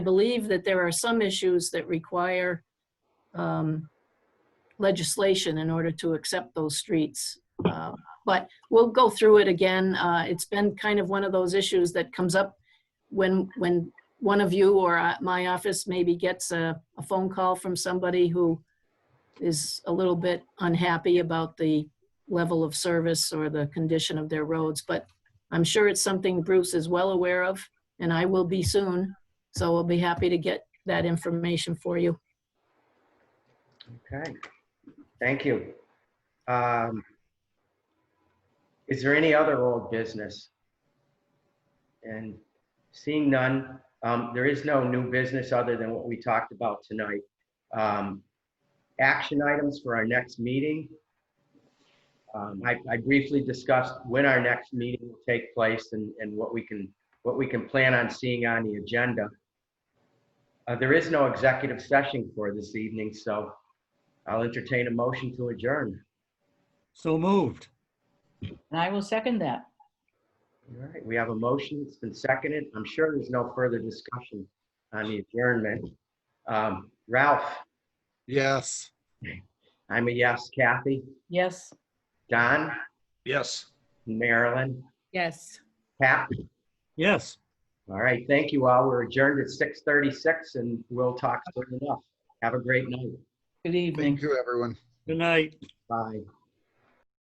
believe that there are some issues that require um, legislation in order to accept those streets. Uh, But we'll go through it again. Uh, It's been kind of one of those issues that comes up when, when one of you or uh, my office maybe gets a, a phone call from somebody who is a little bit unhappy about the level of service or the condition of their roads. But I'm sure it's something Bruce is well aware of, and I will be soon. So we'll be happy to get that information for you. Okay, thank you. Um, Is there any other old business? And seeing none, um, there is no new business other than what we talked about tonight. Um, Action items for our next meeting. Um, I I briefly discussed when our next meeting will take place and, and what we can, what we can plan on seeing on the agenda. Uh, There is no executive session for this evening, so I'll entertain a motion to adjourn. So moved. And I will second that. All right, we have a motion, it's been seconded. I'm sure there's no further discussion on the adjournment. Um, Ralph, Yes. I'm a yes. Kathy, Yes. Don, Yes. Marilyn, Yes. Pat. Yes. All right, thank you all. We're adjourned at 6:36 and we'll talk soon enough. Have a great night. Good evening. Thank you, everyone. Good night. Bye.